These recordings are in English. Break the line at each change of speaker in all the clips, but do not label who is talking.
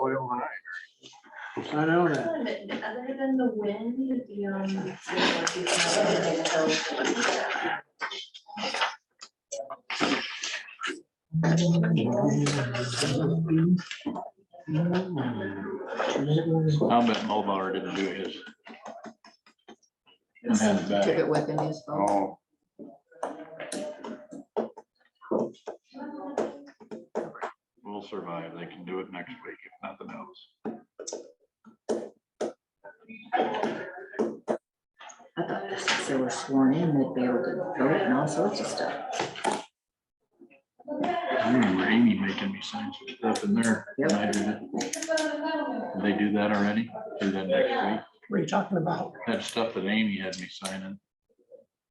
oil and
I know that.
Other than- other than the wind, the, um. the-
I'll bet Mulbauer didn't do his. And had it
Took
back.
it with him, his phone.
Oh,
We'll survive. They can do it next week if nothing else.
I thought this- they were sworn in, they'd be able to vote and all sorts of stuff.
I remember Amy making me sign some stuff in there. when I did it. They do that already? Do that next week?
What are you talking about?
That stuff that Amy had me signing.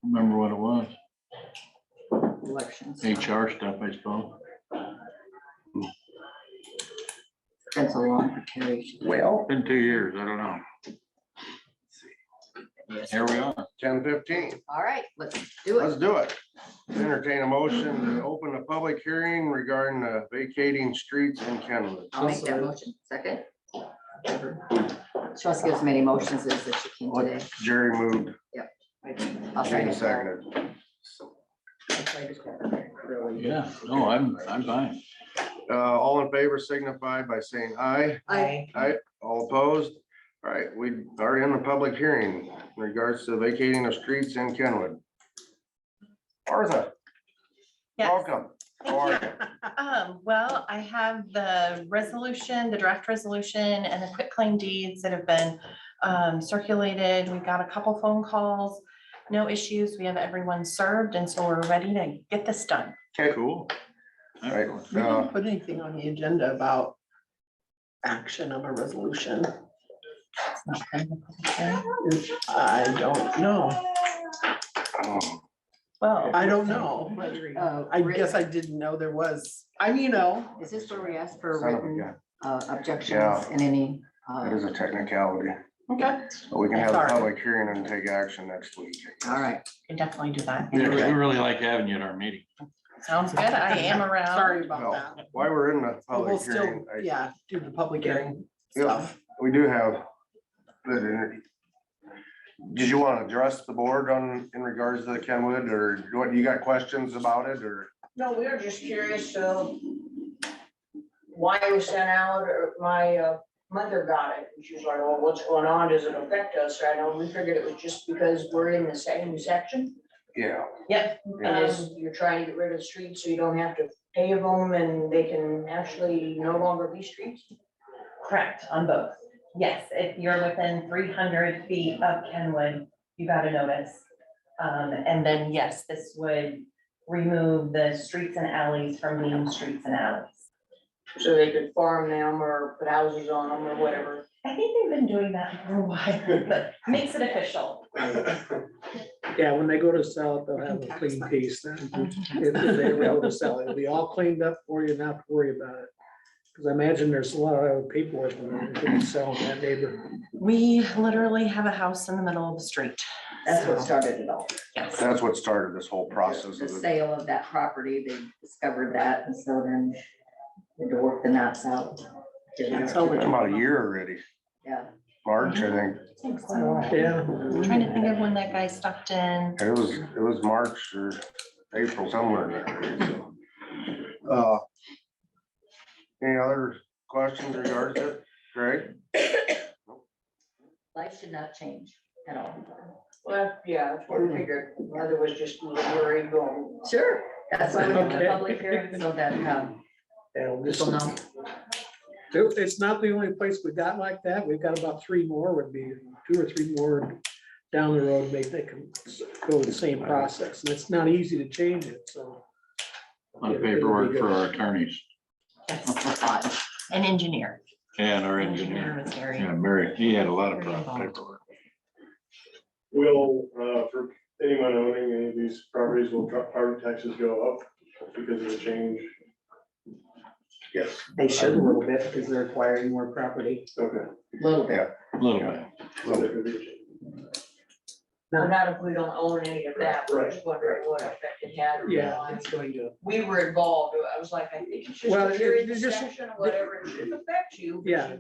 Remember what it was?
Elections.
HR stuff, I suppose.
That's a long preparation.
well,
Been two years. I don't know. Here we are.
ten fifteen.
All right, let's do
Let's
it.
do it. Entertain a motion to open a public hearing regarding uh, vacating streets in Kenwood.
I'll make that motion. Second. She wants to give as many motions as that she can today.
Jerry moved,
I'll try
Shane
to.
seconded.
I'll try to- really-
Yeah, no, I'm, I'm fine.
Uh, all in favor signify by saying aye.
I,
All opposed? All right, we are in the public hearing in regards to vacating of streets in Kenwood. Martha,
Yes,
welcome. How are
thank
you?
you. Um, well, I have the resolution, the draft resolution and the quitclaim deeds that have been um, circulated. We've got a couple phone calls, no issues. We have everyone served and so we're ready to get this done.
Cool.
Right.
We
Uh,
didn't put anything on the agenda about action of a resolution. I don't know.
Oh,
Well,
I don't know. Uh, I guess I didn't know there was, I mean, you know,
uh, Is this where we ask for
son of a
written
gun.
uh, objections
Yeah.
and any? uh,
That is a technicality.
okay,
But We can have a
Sorry.
public hearing and take action next week. I
All
guess.
right.
we can definitely do that.
Yeah, 'cause we really like having you at our meeting.
Sounds good. I am around.
sorry
No,
about that.
While we're in the
We'll
public
still,
hearing, I
yeah, do the public hearing
Yeah.
stuff.
We do have. the- Did you want to address the board on, in regards to the Kenwood, or what, you got questions about it, or?
No, we were just curious, so why it was sent out, or my uh, mother got it, and she was like, well, what's going on, does it affect us, I know, we figured it was just because we're in the same section,
Yeah.
Yep.
and it's- you're trying to get rid of the streets, so you don't have to pave them, and they can actually no longer be streets.
Correct, on both. Yes, if you're within three hundred feet of Kenwood, you got a notice. Um, and then, yes, this would remove the streets and alleys from being streets and alleys.
So they could farm them, or put houses on them, or whatever.
I think they've been doing that for a while, but makes it official.
Yeah, when they go to sell it, they'll have a clean piece then. If if they ever go to sell it, it'll be all cleaned up for you, not to worry about it. Because I imagine there's a lot of paperwork when they're selling that neighbor.
We literally have a house in the middle of the street.
That's what started it all.
Yes.
That's what started this whole process
The
of it.
sale of that property, they discovered that, and so then they had to work the knots out.
It's Mm-hmm. been About a year already,
Yeah.
March, I think,
Trying
Yeah.
to think of when that guy stopped in.
it was, it was March or April somewhere. in there, so. Uh, Any other questions regards to it, Greg?
Life should not change at all.
Well, yeah, that's what we figured, mother was just a little worried going,
Sure. That's why we have a
Okay.
public hearing, so that um,
Yeah, we'll just-
people know.
It- It's not the only place we got like that. We've got about three more would be, two or three more down the road, maybe they can go the same process. And it's not easy to change it, so.
On paperwork for our attorneys
Yes. An engineer.
and our engineer.
was very.
Yeah, Mary, he had a lot of problems.
will, uh, for anyone owning any of these properties, will pro- property taxes go up because of the change?
Yes.
They should a little bit because they're acquiring more property.
Okay.
Little bit.
A little bit.
So there could be a change.
No.
Not if we don't own any of that, we're just wondering what effect it had. on
Yeah,
lives.
it's going to,
We were involved, I was like, I think it's just,
Well,
if you're in
it-
the
it's just-
section or whatever, it shouldn't affect you. but
Yeah.
you